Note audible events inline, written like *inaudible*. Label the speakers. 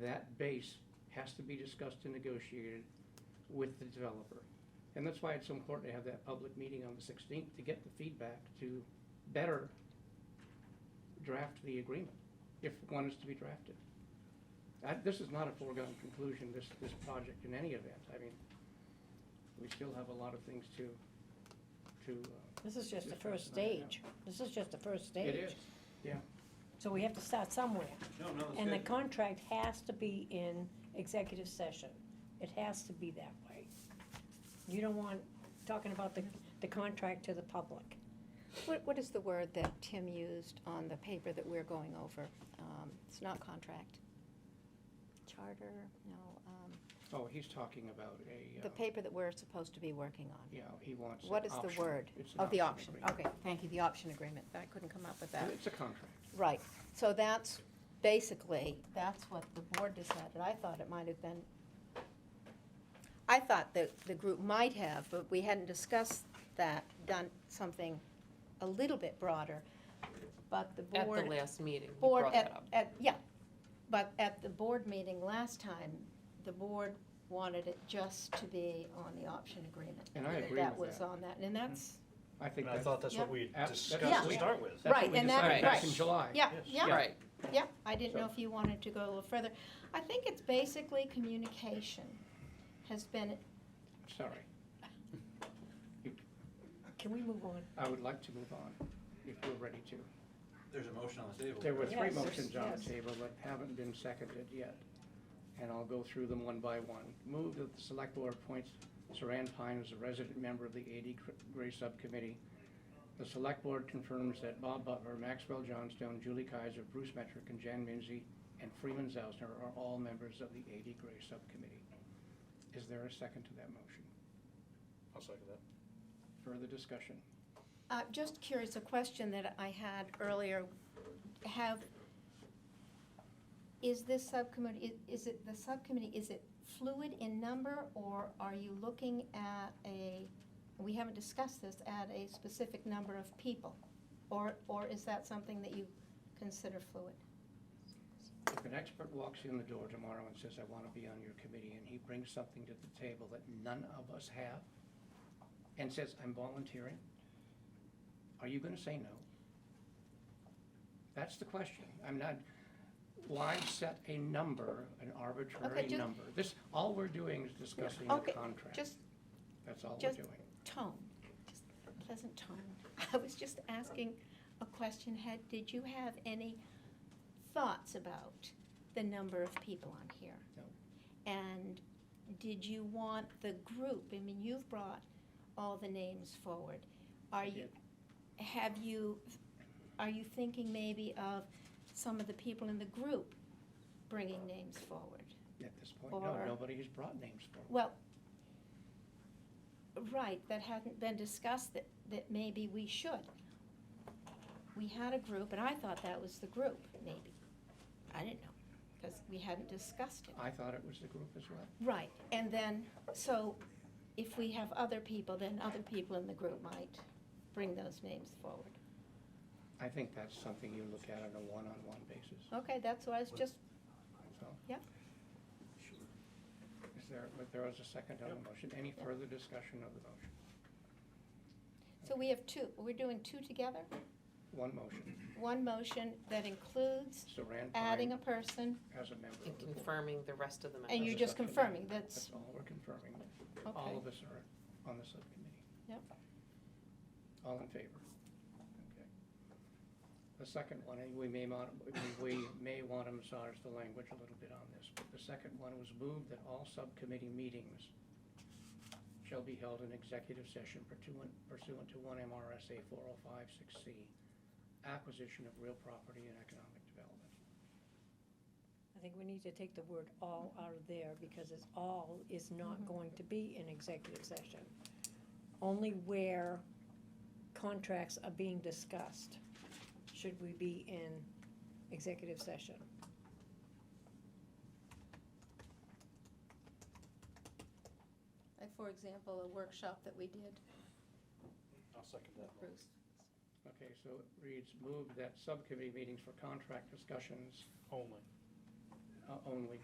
Speaker 1: that base has to be discussed and negotiated with the developer. And that's why it's so important to have that public meeting on the sixteenth to get the feedback to better draft the agreement, if one is to be drafted. I this is not a foregone conclusion, this, this project in any event. I mean, we still have a lot of things to, to. uh,
Speaker 2: This is just the
Speaker 1: discuss
Speaker 2: first
Speaker 1: and iron out.
Speaker 2: stage. This is just the first stage.
Speaker 1: It is, yeah.
Speaker 2: So we have to start somewhere.
Speaker 3: No, no, it's
Speaker 2: And the
Speaker 3: good.
Speaker 2: contract has to be in executive session. It has to be that way. You don't want, talking about the, the contract to the public.
Speaker 4: What, what is the word that Tim used on the paper that we're going over? Um, It's not contract. Charter, no, um,
Speaker 1: Oh, he's talking about a,
Speaker 4: the
Speaker 1: uh,
Speaker 4: paper that we're supposed to be working on.
Speaker 1: yeah, he wants. an
Speaker 4: What is the
Speaker 1: option.
Speaker 4: word?
Speaker 1: It's an
Speaker 4: Of the option,
Speaker 1: agreement.
Speaker 4: okay, thank you, the option agreement. I couldn't come up with that.
Speaker 1: It's a contract.
Speaker 4: Right, so that's basically, that's what the board decided. I thought it might have been, I thought that the group might have, but we hadn't discussed that, done something a little bit broader. But the
Speaker 5: At the
Speaker 4: board,
Speaker 5: last meeting, you
Speaker 4: board,
Speaker 5: brought that
Speaker 4: at,
Speaker 5: up.
Speaker 4: at, yeah. But at the board meeting last time, the board wanted it just to be on the option agreement.
Speaker 1: And I agree
Speaker 4: That
Speaker 1: with
Speaker 4: was
Speaker 1: that.
Speaker 4: on that, and that's,
Speaker 1: I think
Speaker 3: And I
Speaker 1: that's,
Speaker 3: thought that's what
Speaker 4: Yeah.
Speaker 3: we
Speaker 1: Yeah.
Speaker 3: discussed to
Speaker 4: Yeah.
Speaker 3: start with.
Speaker 1: that's
Speaker 4: Right,
Speaker 1: what we
Speaker 4: and that-
Speaker 1: decided back
Speaker 4: right.
Speaker 1: in July.
Speaker 4: yeah,
Speaker 3: Yes.
Speaker 4: yeah.
Speaker 5: Right,
Speaker 4: Yeah, I didn't know
Speaker 1: So-
Speaker 4: if you wanted to go a little further. I think it's basically communication has been,
Speaker 1: Sorry,
Speaker 2: Can we move on?
Speaker 1: I would like to move on, if we're ready to.
Speaker 3: There's a motion on the table.
Speaker 1: There were three
Speaker 2: Yes,
Speaker 1: motions on
Speaker 2: yes.
Speaker 1: the table that haven't been seconded yet, and I'll go through them one by one. Move that the select board appoints Saran Pine as a resident member of the AD Cr- Gray Subcommittee. The select board confirms that Bob Butler, Maxwell Johnstone, Julie Kaiser, Bruce Metrick, and Jan Minzy, and Freeman Zausner are all members of the AD Gray Subcommittee. Is there a second to that motion?
Speaker 3: I'll second that.
Speaker 1: Further discussion?
Speaker 4: uh, just curious, a question that I had earlier. Have, is this subcommittee, i- is it, the subcommittee, is it fluid in number? Or are you looking at a, we haven't discussed this, at a specific number of people? Or, or is that something that you consider fluid?
Speaker 1: If an expert walks in the door tomorrow and says, I want to be on your committee, and he brings something to the table that none of us have, and says, I'm volunteering, are you going to say no? That's the question. I'm not, why set a number, an arbitrary
Speaker 4: Okay, ju-
Speaker 1: number? This, all we're doing is discussing the
Speaker 4: Okay,
Speaker 1: contract.
Speaker 4: Just
Speaker 1: That's all we're
Speaker 4: just-
Speaker 1: doing.
Speaker 4: tone, just a pleasant tone. *laughs* I was just asking a question, had, did you have any thoughts about the number of people on here?
Speaker 1: No.
Speaker 4: And did you want the group, I mean, you've brought all the names forward. Are
Speaker 1: I
Speaker 4: you, have you, are you thinking maybe of some of the people in the group bringing names forward?
Speaker 1: At this point, no,
Speaker 4: Or-
Speaker 1: nobody has brought names forward.
Speaker 4: Well, right, that hadn't been discussed, that, that maybe we should. We had a group, and I thought that was the group, maybe. I didn't know, because we hadn't discussed it.
Speaker 1: I thought it was the group as well.
Speaker 4: Right, and then, so if we have other people, then other people in the group might bring those names forward.
Speaker 1: I think that's something you look at on a one-on-one basis,
Speaker 4: Okay, that's what I was just,
Speaker 1: so.
Speaker 3: Sure.
Speaker 1: Is there, but there was a second on the motion. Any further discussion of the motion?
Speaker 4: so we have two, we're doing two together?
Speaker 1: One motion,
Speaker 4: One motion that includes
Speaker 1: Saran
Speaker 4: adding
Speaker 1: Pine
Speaker 4: a person,
Speaker 1: as a member
Speaker 5: and
Speaker 1: of the board.
Speaker 5: confirming the rest of the
Speaker 4: and
Speaker 5: members.
Speaker 4: you're just confirming, that's,
Speaker 1: That's all we're confirming.
Speaker 4: okay.
Speaker 1: All of us are on the subcommittee.
Speaker 4: Yep.
Speaker 1: All in favor? Okay. The second one, and we may mod, we may want to massage the language a little bit on this, but the second one was moved that all subcommittee meetings shall be held in executive session pursuant, pursuant to one MRSA four oh five six C, acquisition of real property and economic development.
Speaker 2: I think we need to take the word all out of there because it's all is not going to be in executive session. Only where contracts are being discussed should we be in executive session.
Speaker 4: Like, for example, a workshop that we did
Speaker 3: I'll second
Speaker 4: with Bruce.
Speaker 1: Okay, so it reads, move that subcommittee meetings for contract discussions
Speaker 3: Only.
Speaker 1: uh, only